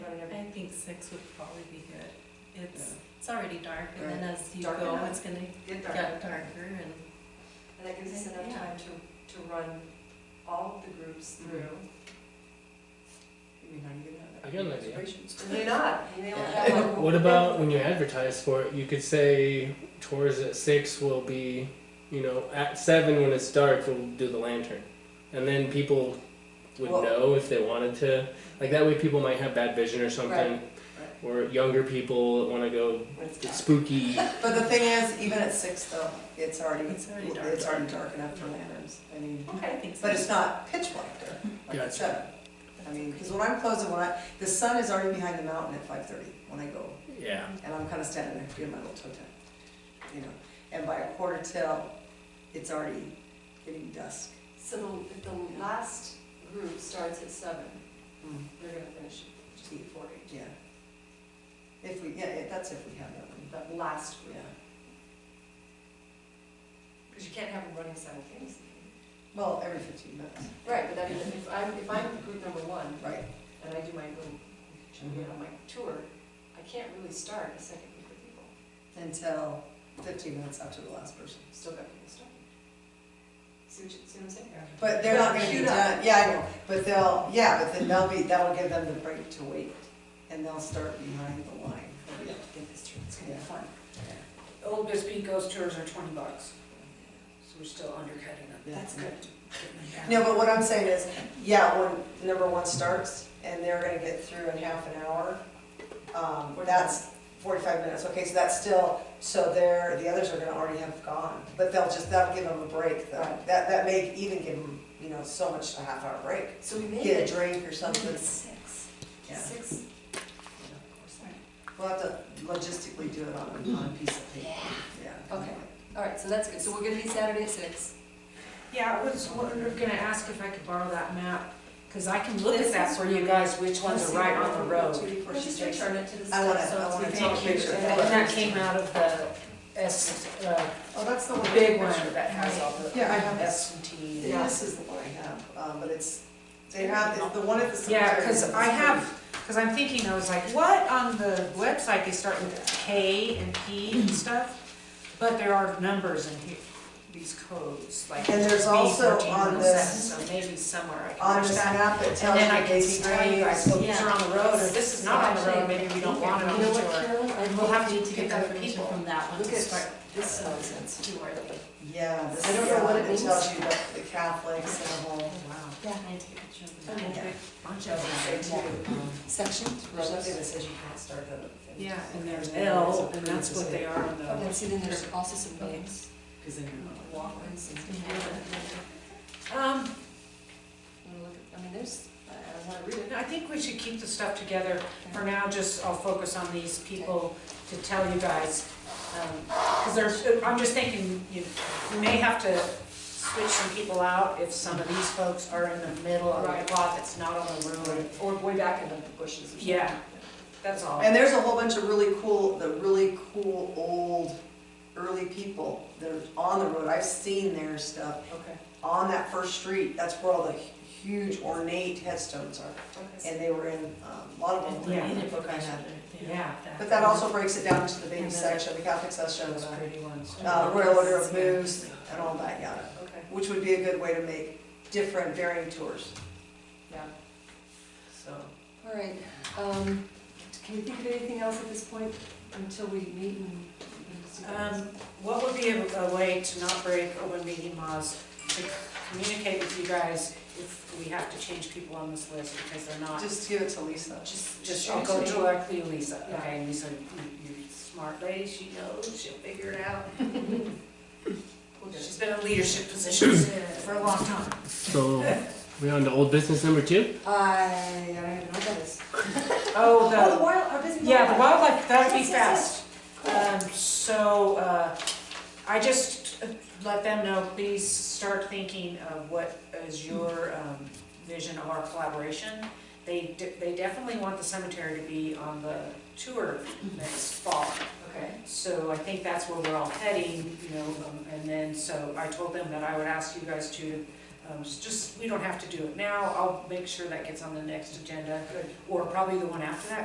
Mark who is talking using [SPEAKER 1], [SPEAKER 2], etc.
[SPEAKER 1] six would probably be good. It's,
[SPEAKER 2] Yeah.
[SPEAKER 1] it's already dark and then as you
[SPEAKER 2] Dark
[SPEAKER 1] go,
[SPEAKER 2] enough.
[SPEAKER 1] it's gonna
[SPEAKER 3] Get dark.
[SPEAKER 1] get darker and,
[SPEAKER 3] And that gives us enough
[SPEAKER 1] Yeah.
[SPEAKER 3] time to, to run all of the groups through.
[SPEAKER 2] I mean, how do you get
[SPEAKER 4] I
[SPEAKER 2] out
[SPEAKER 4] got an
[SPEAKER 2] of that?
[SPEAKER 4] idea.
[SPEAKER 2] Registrations.
[SPEAKER 3] And they not, and they only have one.
[SPEAKER 4] What about when you advertise for it? You could say tours at six will be, you know, at seven when it's dark we'll do the lantern, and then people would
[SPEAKER 2] Well-
[SPEAKER 4] know if they wanted to. Like that way, people might have bad vision or something, or younger people want to go
[SPEAKER 2] When it's
[SPEAKER 4] get
[SPEAKER 2] dark.
[SPEAKER 4] spooky.
[SPEAKER 2] But the thing is, even at six though, it's already,
[SPEAKER 1] It's already dark.
[SPEAKER 2] it's already dark enough for lanterns, I mean,
[SPEAKER 1] I
[SPEAKER 3] Okay,
[SPEAKER 1] think so.
[SPEAKER 2] but it's not pitch black there, like
[SPEAKER 4] Gotcha.
[SPEAKER 2] at seven. I mean, because when I'm closing, when I, the sun is already behind the mountain at five thirty when I go,
[SPEAKER 4] yeah.
[SPEAKER 2] and I'm kind of standing there doing my little toe tap, you know, and by a quarter till, it's already getting dusk.
[SPEAKER 3] so the, if the last group starts at seven,
[SPEAKER 1] Hmm.
[SPEAKER 2] Mm,
[SPEAKER 3] they're gonna finish at just before eight.
[SPEAKER 2] Yeah. If we, yeah, yeah, that's if we have that one,
[SPEAKER 3] That last group,
[SPEAKER 2] yeah.
[SPEAKER 3] because you can't have them running simultaneously.
[SPEAKER 2] Well, every fifteen minutes,
[SPEAKER 3] Right, but I mean, if I'm, if I'm group number one
[SPEAKER 2] right,
[SPEAKER 3] and I do my little, you know, my tour, I can't really start a second group of people.
[SPEAKER 2] until fifteen minutes after the last person.
[SPEAKER 3] Still got people starting. See what you, see what I'm saying?
[SPEAKER 2] But they're not gonna be
[SPEAKER 3] Queued up.
[SPEAKER 2] done, yeah, I know, but they'll, yeah, but then they'll be, that'll give them the break to wait, and they'll start behind the line.
[SPEAKER 3] We have to get this through, it's
[SPEAKER 2] gonna be
[SPEAKER 3] fun.
[SPEAKER 5] Old Bisbee ghost tours are twenty bucks, so we're still undercutting them.
[SPEAKER 3] That's
[SPEAKER 2] Yeah.
[SPEAKER 3] good.
[SPEAKER 2] No, but what I'm saying is, yeah, when number one starts, and they're gonna get through in half an hour, um, that's forty-five minutes, okay, so that's still, so they're, the others are gonna already have gone, but they'll just, that'll give them a break, though.
[SPEAKER 3] Right.
[SPEAKER 2] that, that may even give them, you know, so much, a half hour break,
[SPEAKER 3] So we made
[SPEAKER 2] get
[SPEAKER 3] it
[SPEAKER 2] a drink or
[SPEAKER 3] we
[SPEAKER 2] something,
[SPEAKER 3] made six,
[SPEAKER 2] yeah.
[SPEAKER 3] six.
[SPEAKER 2] We'll have to logistically do it on a, on a piece of paper, yeah.
[SPEAKER 3] Okay. All right, so that's good, so we're gonna be Saturday at six.
[SPEAKER 5] Yeah, I was wondering- gonna ask if I could borrow that map, because I can look at that for you guys, which ones are right on the road.
[SPEAKER 2] Before she takes her-
[SPEAKER 3] return it to the.
[SPEAKER 2] I wanna,
[SPEAKER 3] staff, so
[SPEAKER 2] I
[SPEAKER 3] it's
[SPEAKER 2] wanna
[SPEAKER 3] gonna
[SPEAKER 2] take a
[SPEAKER 3] take you-
[SPEAKER 2] picture.
[SPEAKER 5] And that came out of the S, uh,
[SPEAKER 2] Oh, that's the one. I
[SPEAKER 5] big
[SPEAKER 2] have.
[SPEAKER 5] one that has all the
[SPEAKER 2] Yeah, I have that.
[SPEAKER 5] S and T.
[SPEAKER 2] Yeah, This is the one I have, um, but it's, they have, it's the one at the cemetery.
[SPEAKER 5] Yeah, because I have, because I'm thinking, I was like, what on the website, they start with K and P and stuff, but there are numbers in here, these codes, like.
[SPEAKER 2] And there's also
[SPEAKER 5] B14,
[SPEAKER 2] on
[SPEAKER 5] 107,
[SPEAKER 2] this-
[SPEAKER 5] So maybe somewhere I
[SPEAKER 2] On
[SPEAKER 5] can
[SPEAKER 2] this
[SPEAKER 5] touch that.
[SPEAKER 2] map, it
[SPEAKER 5] And
[SPEAKER 2] tells you
[SPEAKER 5] then I can
[SPEAKER 2] dates,
[SPEAKER 5] see, tell you guys,
[SPEAKER 2] times.
[SPEAKER 5] well, these are on the road, or this is not on the road, maybe we don't want it on the tour.
[SPEAKER 1] Carolyn?
[SPEAKER 5] We'll have to
[SPEAKER 1] need to
[SPEAKER 5] pick
[SPEAKER 1] get
[SPEAKER 5] other
[SPEAKER 1] information
[SPEAKER 5] people.
[SPEAKER 1] from that one
[SPEAKER 3] Look
[SPEAKER 1] to
[SPEAKER 3] at
[SPEAKER 1] start.
[SPEAKER 3] This nonsense, you are the.
[SPEAKER 2] Yeah, this
[SPEAKER 3] I
[SPEAKER 2] is
[SPEAKER 3] don't
[SPEAKER 2] the
[SPEAKER 3] know what
[SPEAKER 2] one,
[SPEAKER 3] it
[SPEAKER 2] it
[SPEAKER 3] means.
[SPEAKER 2] tells you the the Catholics and the whole.
[SPEAKER 5] Oh, wow.
[SPEAKER 1] Yeah. I need to get a picture of that.
[SPEAKER 3] Okay.
[SPEAKER 2] Yeah.
[SPEAKER 5] Bunch
[SPEAKER 2] Doesn't say
[SPEAKER 5] of
[SPEAKER 2] two.
[SPEAKER 5] them.
[SPEAKER 3] Sections,
[SPEAKER 2] There's nothing that says you can't start that at fifty.
[SPEAKER 5] Yeah, and there's L, and that's what they are on the.
[SPEAKER 3] Okay, see, then there's also some names,
[SPEAKER 2] Cause then you're not like-
[SPEAKER 3] walkways, and
[SPEAKER 1] Yeah.
[SPEAKER 5] Um,
[SPEAKER 3] Wanna look at- I mean, there's, I I wanna read it.
[SPEAKER 5] I think we should keep the stuff together. For now, just, I'll focus on these people to tell you guys. Because there's, I'm just thinking, you you may have to switch some people out if some of these folks are in the middle of
[SPEAKER 3] Right.
[SPEAKER 5] a lot that's not on the road.
[SPEAKER 3] Or way back in the bushes or something.
[SPEAKER 5] Yeah, that's all.
[SPEAKER 2] And there's a whole bunch of really cool, the really cool old, early people that are on the road. I've seen their stuff
[SPEAKER 3] Okay.
[SPEAKER 2] on that first street. That's where all the huge ornate headstones are.
[SPEAKER 3] Okay.
[SPEAKER 2] And they were in, um, a lot of them.
[SPEAKER 5] Yeah.
[SPEAKER 2] in
[SPEAKER 1] Need
[SPEAKER 2] the
[SPEAKER 1] a
[SPEAKER 2] book I
[SPEAKER 1] picture
[SPEAKER 2] had.
[SPEAKER 1] there.
[SPEAKER 5] Yeah,
[SPEAKER 2] But that also breaks it down to the baby
[SPEAKER 5] And then-
[SPEAKER 2] section, the Catholic section,
[SPEAKER 5] those
[SPEAKER 2] the
[SPEAKER 5] pretty ones.
[SPEAKER 2] uh, Royal Order of Moose, and all that, yeah.
[SPEAKER 3] Okay.
[SPEAKER 2] Which would be a good way to make different varying tours,
[SPEAKER 3] Yeah.
[SPEAKER 2] so.
[SPEAKER 3] All right, um, can you think of anything else at this point until we meet and? and see what happens?
[SPEAKER 5] Um, What would be a a way to not break open meeting laws, to communicate with you guys if we have to change people on this list because they're not
[SPEAKER 2] Just give it to Lisa.
[SPEAKER 5] Just,
[SPEAKER 3] Just
[SPEAKER 5] just, I'll go
[SPEAKER 3] shoot it.
[SPEAKER 5] directly to Lisa,
[SPEAKER 3] Yeah.
[SPEAKER 5] okay, and Lisa, you- you're a smart lady, she knows, she'll figure it out.
[SPEAKER 3] We'll do it.
[SPEAKER 5] She's been in leadership positions for a long time.
[SPEAKER 4] So we on to old business number two.
[SPEAKER 3] I, I don't even know what that is.
[SPEAKER 5] Oh,
[SPEAKER 3] Oh, the
[SPEAKER 5] the,
[SPEAKER 3] wild, our busy.
[SPEAKER 5] yeah, the wildlife, that'd be
[SPEAKER 3] Yes, yes,
[SPEAKER 5] fast. Um, so, uh, I just uh, let them know, please start thinking of what is your, um, vision of our collaboration. They, de- they definitely want the cemetery to be on the tour next fall.
[SPEAKER 3] Okay.
[SPEAKER 5] So I think that's where we're all heading, you know, um, and then, so I told them that I would ask you guys to, um, s- just, we don't have to do it now, I'll make sure that gets on the next agenda, or probably the one after that,